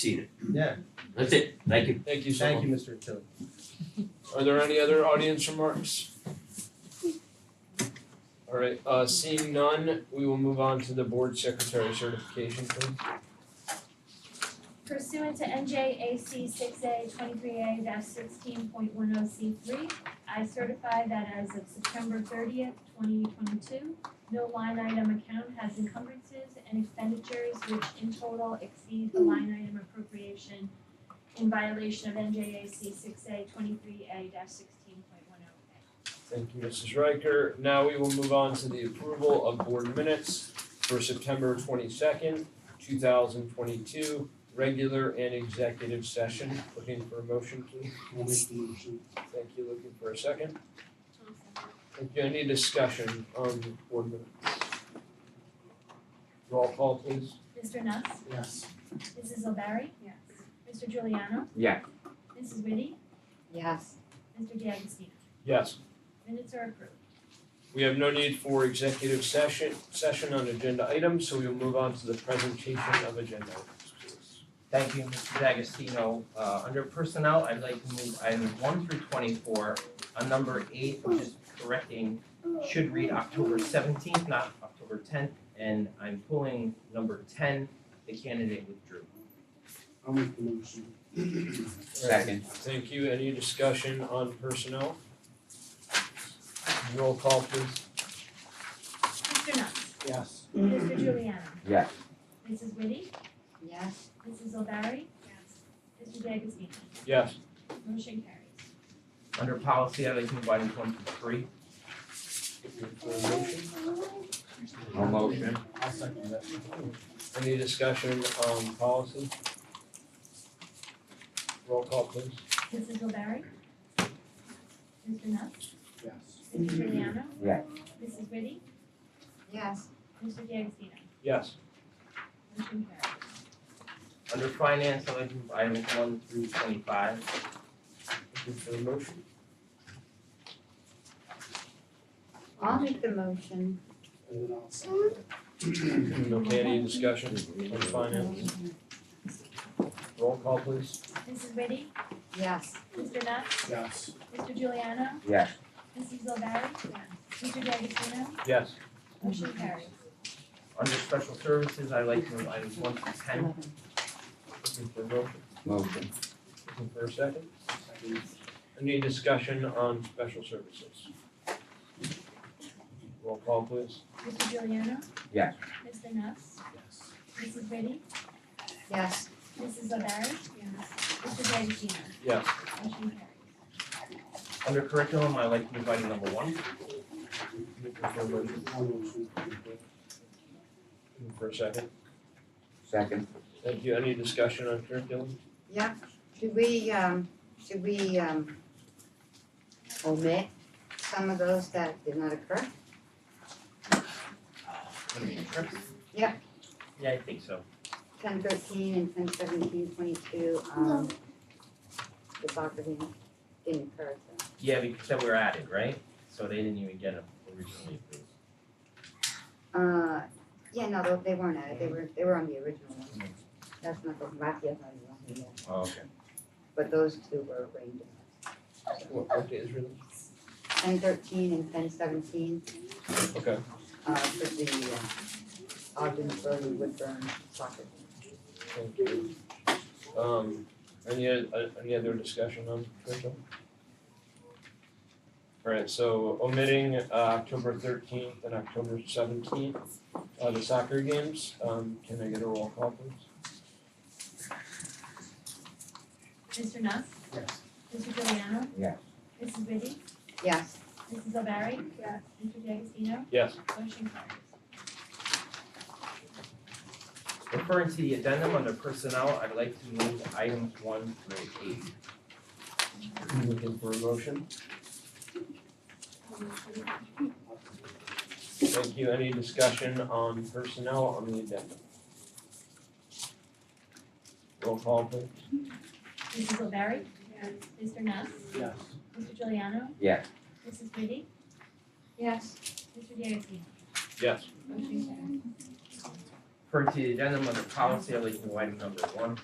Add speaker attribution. Speaker 1: seen it.
Speaker 2: Yeah,
Speaker 1: That's it. Thank you.
Speaker 3: Thank you so
Speaker 2: thank
Speaker 3: much.
Speaker 2: you, Mr. Attili.
Speaker 3: Are there any other audience remarks? All right, uh seeing none, we will move on to the board secretary certification, please.
Speaker 4: Pursuant to NJAC six A twenty-three A sixteen point one oh C three, I certify that as of September thirtieth, twenty twenty-two, no line item account has encumbrances and expenditures which in total exceed the line item appropriation in violation of NJAC six A twenty-three A sixteen point one oh A.
Speaker 3: Thank you, Mrs. Riker. Now we will move on to the approval of board minutes for September twenty-second, two thousand twenty-two, regular and executive session. Looking for a motion, please.
Speaker 5: I'll make the motion.
Speaker 3: Thank you. Looking for a second. Thank you. Any discussion on board minutes? Roll call, please.
Speaker 4: Mr. Nuss?
Speaker 5: Yes.
Speaker 4: Mrs. O'Barry? Yes. Mr. Giuliano?
Speaker 1: Yeah.
Speaker 4: Mrs. Whitty?
Speaker 6: Yes.
Speaker 4: Mr. D'Agostino?
Speaker 3: Yes.
Speaker 4: Minutes are approved.
Speaker 3: We have no need for executive session, session on agenda items, so we will move on to the presentation of agenda items, please.
Speaker 2: Thank you, Mr. D'Agostino. Uh, under personnel, I'd like to move items one through twenty-four. On number eight, which is correcting, should read October seventeenth, not October tenth. And I'm pulling number ten, the candidate withdrew.
Speaker 5: I'll make the motion.
Speaker 1: Second.
Speaker 3: Thank you. Any discussion on personnel? Roll call, please.
Speaker 4: Mr. Nuss?
Speaker 5: Yes.
Speaker 4: Mr. Giuliano.
Speaker 1: Yeah.
Speaker 4: Mrs. Whitty.
Speaker 6: Yes.
Speaker 4: Mrs. O'Barry. Yes. Mr. D'Agostino.
Speaker 3: Yes.
Speaker 4: Motion carries.
Speaker 2: Under policy, I'd like to move items one through three.
Speaker 1: No motion.
Speaker 5: I'll second that.
Speaker 3: Any discussion on policy? Roll call, please.
Speaker 4: Mrs. O'Barry. Mr. Nuss.
Speaker 5: Yes.
Speaker 4: Mr. Giuliano.
Speaker 1: Yeah.
Speaker 4: Mrs. Whitty.
Speaker 6: Yes.
Speaker 4: Mr. D'Agostino.
Speaker 3: Yes.
Speaker 4: Motion carries.
Speaker 2: Under finance, I'd like to move items one through twenty-five.
Speaker 3: Looking for the motion.
Speaker 6: I'll make the motion.
Speaker 5: And then I'll second it.
Speaker 3: Okay, any discussion on finance? Roll call, please.
Speaker 4: Mrs. Whitty.
Speaker 6: Yes.
Speaker 4: Mr. Nuss.
Speaker 5: Yes.
Speaker 4: Mr. Giuliano.
Speaker 1: Yeah.
Speaker 4: Mrs. O'Barry. Mr. D'Agostino.
Speaker 3: Yes.
Speaker 4: Motion carries.
Speaker 2: Under special services, I'd like to move items one through ten.
Speaker 6: Eleven.
Speaker 3: Looking for a motion.
Speaker 1: Motion.
Speaker 3: Looking for a second.
Speaker 5: Second.
Speaker 3: Any discussion on special services? Roll call, please.
Speaker 4: Mr. Giuliano.
Speaker 1: Yeah.
Speaker 4: Mr. Nuss.
Speaker 5: Yes.
Speaker 4: Mrs. Whitty.
Speaker 6: Yes.
Speaker 4: Mrs. O'Barry. Mr. D'Agostino.
Speaker 3: Yes.
Speaker 4: Motion carries.
Speaker 2: Under curriculum, I'd like to move item number one.
Speaker 3: Looking for a motion.
Speaker 5: I'll motion.
Speaker 3: Looking for a second.
Speaker 1: Second.
Speaker 3: Thank you. Any discussion on curriculum?
Speaker 6: Yep. Should we, um, should we, um, omit some of those that did not occur? Yeah.
Speaker 2: Yeah, I think so.
Speaker 6: Ten thirteen and ten seventeen twenty-two, um, the soccer didn't, didn't occur, so.
Speaker 2: Yeah, because they were added, right? So they didn't even get them originally approved.
Speaker 6: Uh, yeah, no, tho- they weren't at it, they were, they were on the original one. That's not the, Rafia's not even on here yet,
Speaker 2: Oh, okay.
Speaker 6: but those two were arranged.
Speaker 3: What, what day is release?
Speaker 6: Ten thirteen and ten seventeen,
Speaker 3: Okay.
Speaker 6: uh, for the, uh, Ogden Burley Woodburn soccer. team.
Speaker 3: Thank you. Um, any, uh, any other discussion on curriculum? Alright, so omitting uh, October thirteenth and October seventeenth, uh, the soccer games, um, can I get a roll call please?
Speaker 4: Mr. Nuss.
Speaker 5: Yes.
Speaker 4: Mr. Giuliano.
Speaker 1: Yeah.
Speaker 4: Mrs. Whitty.
Speaker 6: Yes,
Speaker 4: Mrs. O'Barry. Yes. Mr. D'Agostino.
Speaker 3: Yes.
Speaker 4: Motion carries.
Speaker 2: Referring to the addendum under personnel, I'd like to move items one through eight.
Speaker 3: Looking for a motion? Thank you. Any discussion on personnel on the addendum? Roll call please.
Speaker 4: Mrs. O'Barry. Yes. Mr. Nuss.
Speaker 5: Yes.
Speaker 4: Mr. Giuliano.
Speaker 1: Yeah.
Speaker 4: Mrs. Whitty.
Speaker 6: yes,
Speaker 4: Mr. D'Agostino.
Speaker 3: Yes.
Speaker 4: Motion carries.
Speaker 2: Referring to the addendum under policy, I'd like to move item number one.